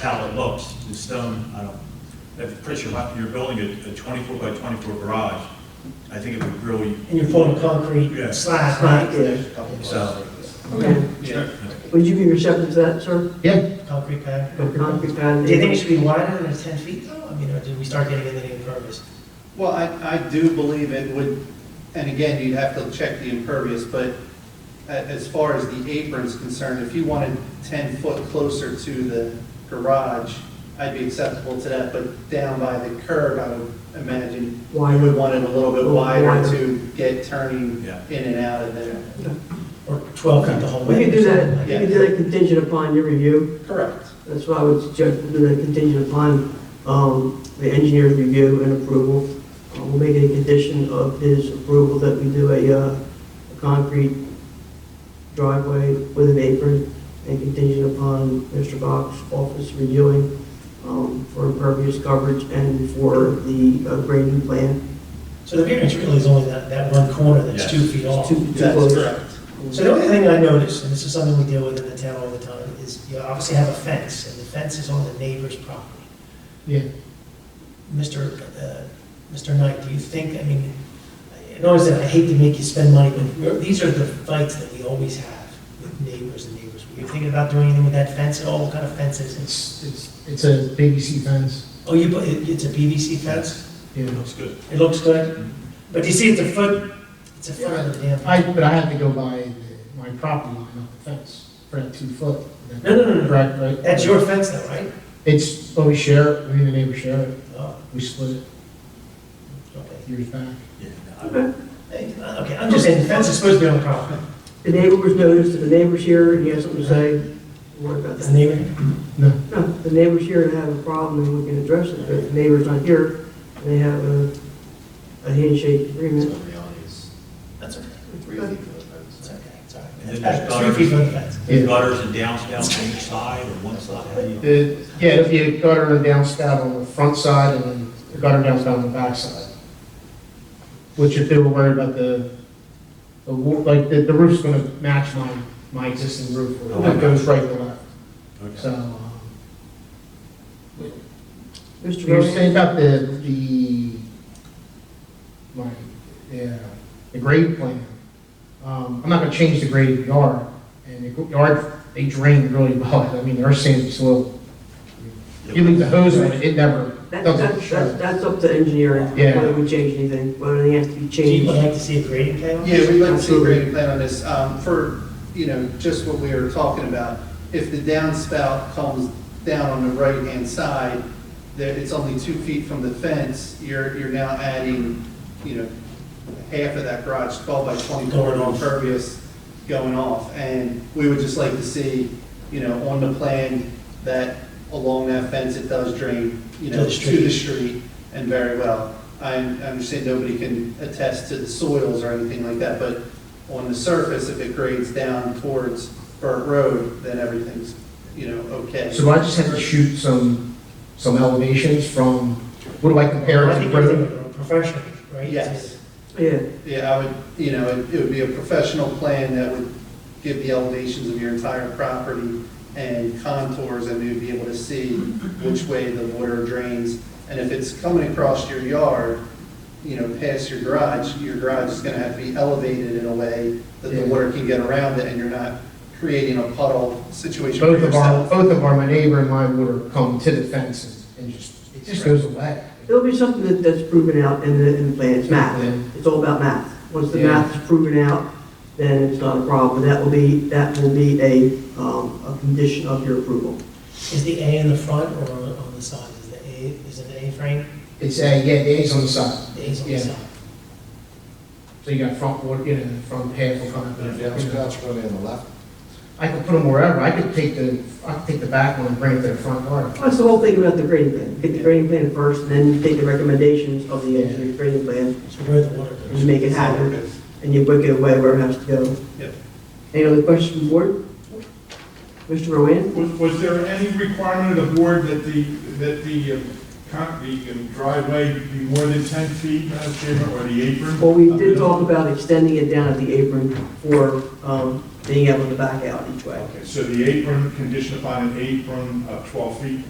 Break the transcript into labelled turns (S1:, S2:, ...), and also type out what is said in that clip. S1: how it looks. It's done, I don't, I'm pretty sure if you're building a a 24 by 24 garage, I think it would really,
S2: And you form a concrete
S1: Yeah.
S2: slab,
S3: Right,
S2: right?
S3: yeah.
S1: so.
S3: Okay. Would you be receptive to that, sir?
S4: Yeah,
S2: Concrete pad.
S3: The concrete pad?
S2: Do you think it should be wider than ten feet though? I mean, or did we start getting into the impervious?
S4: well, I, I do believe it would, and again, you'd have to check the impervious, but a- as far as the apron's concerned, if you wanted 10 foot closer to the garage, I'd be acceptable to that, but down by the curb, I would imagine, I
S3: Wide.
S4: would want it a little bit
S3: Little
S4: wider
S3: wider.
S4: to get turning
S1: Yeah.
S4: in and out of there.
S2: Or twelve feet the whole
S3: We
S2: way?
S3: can do that, we
S2: Yeah.
S3: can do that contingent upon your review.
S4: Correct.
S3: That's why I would suggest we do that contingent upon um, the engineer's review and approval. Uh, We'll make it a condition of his approval that we do a uh, a concrete driveway with an apron and contingent upon Mr. Box's office reviewing um, for impervious coverage and for the uh, grading plan.
S2: So the variance really is only that, that one corner that's
S1: Yes.
S2: two feet off.
S3: Too- too
S4: That's
S3: close.
S4: correct.
S2: So the only thing I noticed, and this is something we deal with in the town all the time, is you obviously have a fence, and the fence is on the neighbor's property.
S4: Yeah.
S2: Mr. uh, Mr. Knight, do you think, I mean, I always said, I hate to make you spend money, but we're- these are the fights that we always have with neighbors and neighbors. Were you thinking about doing anything with that fence at all? What kind of fence is it?
S5: It's, it's, it's a PVC fence,
S2: Oh, you, put it- it's a PVC fence?
S5: you
S1: It
S5: know.
S1: looks good.
S2: It looks good? But you see, it's a foot, it's a foot of the damn.
S5: I, but I had to go by the- my property line, not the fence, for that two foot.
S2: No, no, no, no.
S5: Right, right.
S2: That's your fence though, right?
S5: It's, but we share it, me and the neighbor share it,
S2: Oh,
S5: we split it
S2: okay.
S5: years back.
S1: Yeah, I-
S2: Hey, uh, Okay, I'm just saying, the fence is supposed to be on the property.
S3: The neighbor was noticed, and the neighbor's here, and he has something to say. What about
S2: It's
S3: that?
S2: the neighbor.
S5: No,
S3: No, the neighbor's here and have a problem, and we can address it, but if the neighbor's not here, and they have a, a handshake agreement.
S2: That's okay. It's okay, it's all
S1: And then there's
S2: right. That's Three feet from the
S1: gutters,
S2: fence.
S1: there's gutters and downspouts on each side or one side, how do you?
S5: the, yeah, it'll be a gutter and downspout on the front side and then a gutter and downspout on the back side. Which if they were worried about the, the, wa- like, the, the roof's gonna match my, my existing roof,
S2: Oh,
S5: where it goes right to left,
S1: Okay.
S5: so. um,
S3: Mr.
S5: You were
S3: Rowan,
S5: saying about the, the, my, yeah, the grade plan. Um, I'm not gonna change the grade of the yard, and the yard, they drain really well, I mean, they're sandy soil. You leave the hose on it, it never,
S3: that,
S5: doesn't
S3: that,
S5: show.
S3: that- that's up to engineering,
S5: Yeah.
S3: whether we change anything, whether anything has to be
S2: Do you would
S3: changed.
S2: like to see a grading plan?
S4: Yeah, we'd like to see a
S3: Absolutely.
S4: grading plan on this, um, for, you know, just what we were talking about. If the downspout comes down on the right-hand side, there, it's only two feet from the fence, you're, you're now adding, you know, half of that garage, twelve by twenty-four
S2: Going off.
S4: impervious going off. And we would just like to see, you know, on the plan that along that fence, it does drain, you
S2: To
S4: know,
S2: the
S4: to
S2: street.
S4: the street and very well. I understand nobody can attest to the soils or anything like that, but on the surface, if it grades down towards Burt Road, then everything's, you know, okay.
S5: so I just had to shoot some, some elevations from, what do I compare
S2: I
S5: it to
S2: think
S5: the road?
S2: we're professional, right?
S4: Yes,
S3: Yeah,
S4: yeah, I would, you know, it it would be a professional plan that would give the elevations of your entire property and contours, and you'd be able to see which way the water drains. And if it's coming across your yard, you know, past your garage, your garage is gonna have to be elevated in a way that the
S5: Yeah.
S4: water can get around it, and you're not creating a puddle situation for
S5: Both of our,
S4: yourself.
S5: both of our, my neighbor and my water come to the fence and, and just, it just goes away.
S3: it'll be something that, that's proven out in the, in the plan, it's math,
S5: Yeah.
S3: it's all about math. Once the
S5: Yeah.
S3: math is proven out, then it's not a problem, that will be, that will be a, um, a condition of your approval.
S2: Is the A in the front or on- on the side? Is the A, is it an A frame?
S5: It's, uh, yeah, the A's on the side.
S2: The A's on the
S5: Yeah.
S2: side.
S5: So you got front, wa- you know, front half will come
S6: The
S5: out.
S6: downspouts going in the left,
S5: I could put them wherever, I could take the, I could take the back one and bring it to the front yard.
S3: That's the whole thing about the grading plan, get the grading plan first, and then take the recommendations of the engineer's grading plan,
S2: So where the water
S3: and you
S2: goes.
S3: make it happen. and you book it away where it has to go.
S4: Yep.
S3: Any other questions from the board? Mr. Rowan?
S7: Was, was there any requirement of the board that the, that the, um, con- the um, driveway be more than ten feet, Madam Chairman, or the apron?
S3: Well, we did talk about extending it down at the apron for, um, being able to back out each way.
S7: Okay, so the apron, conditioned upon an apron of 12 feet